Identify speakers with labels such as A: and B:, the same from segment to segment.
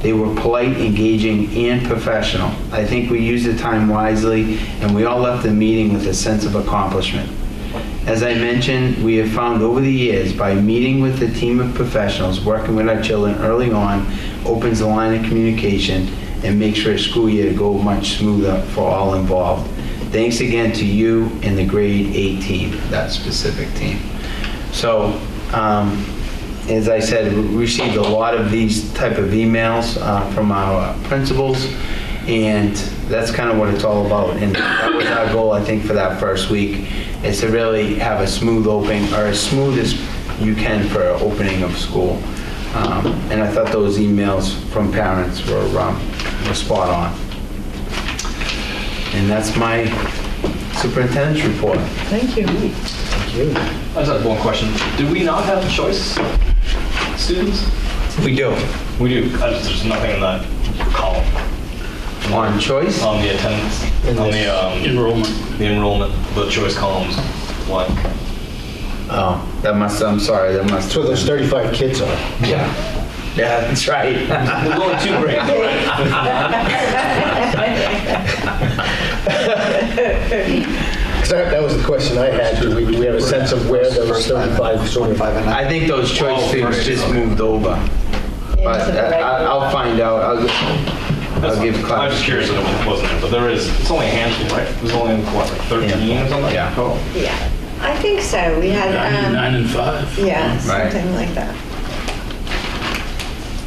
A: They were polite, engaging, and professional. I think we used the time wisely, and we all left the meeting with a sense of accomplishment. As I mentioned, we have found over the years, by meeting with a team of professionals, working with our children early on, opens the line of communication and makes our school year go much smoother for all involved. Thanks again to you and the grade eight team, that specific team. So, um, as I said, we received a lot of these type of emails uh, from our principals, and that's kind of what it's all about. And that was our goal, I think, for that first week, is to really have a smooth opening, or as smooth as you can for an opening of school. Um, And I thought those emails from parents were um, were spot on. And that's my superintendent's report.
B: Thank you.
C: I just have one question. Do we not have choice students?
A: We do.
C: We do. I just, there's nothing in that column
A: On choice?
C: on the attendance, on the um,
D: Enrollment.
C: the enrollment, the choice columns. What?
A: Oh, that must, I'm sorry, that must.
D: That's where those 35 kids are.
A: Yeah, yeah, that's right.
C: We're going two grades, right?
D: So That that was the question I had. Do we do we have a sense of where those 35 sort of...
A: I think those choice
C: Oh,
A: students
C: right.
A: just moved over. But
B: Into the
A: I- I- I'll find out, I'll,
C: That's
A: I'll give
C: fine. I'm just
A: class.
C: curious if it wasn't there, but there is. It's only a handful, right? There's only what, like 13 or something.
A: Yeah.
C: Total?
B: Yeah, I think so. We had, um,
D: and five.
B: yeah,
A: Right.
B: something like that.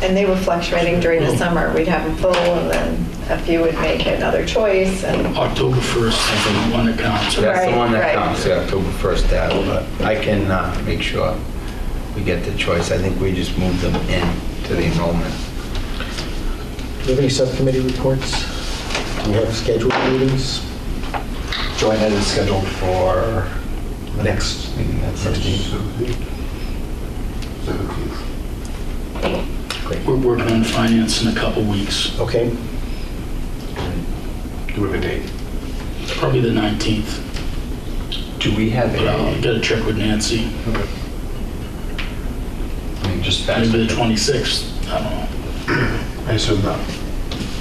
B: And they were fluctuating during the summer. We'd have them full and then a few would make another choice and,
E: October 1st is the one that counts.
A: That's the
B: Right,
A: one that
B: right.
A: comes, yeah, October 1st, that, but I can uh, make sure we get the choice. I think we just moved them in to the enrollment.
D: Do you have any subcommittee reports? Do you have scheduled meetings?
F: Joint Ed is scheduled for the next meeting, that's 16th.
G: 17th.
E: We're working on finance in a couple weeks,
D: Okay.
F: Do we have a date?
E: probably the 19th,
F: Do we have
E: but I'll
F: a,
E: get a check with Nancy.
F: I mean, just fast,
E: Maybe the 26th, I don't know.
F: I assume not.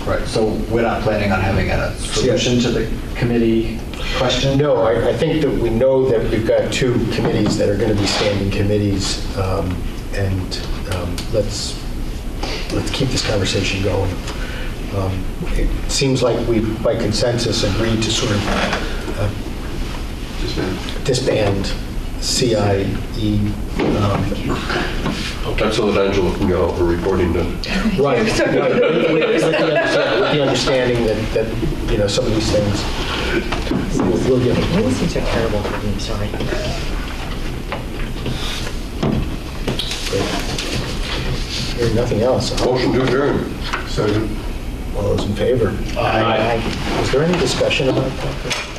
F: Right, so we're not planning on having a solution to the committee question?
D: No, I, I think that we know that we've got two committees that are going to be standing committees, um, and um, let's, let's keep this conversation going. Um, It seems like we, by consensus, agreed to sort of uh, disband CIE. um,
G: That's so that Angela can get all her reporting done.
D: Right. right, With with the understa- with the understanding that, that, you know, some of these things will get. These are terrible, I'm sorry. Hearing nothing else, all
G: Motion to adjourn. Second.
D: all those in favor?
E: Aye.
D: Was there any discussion about that?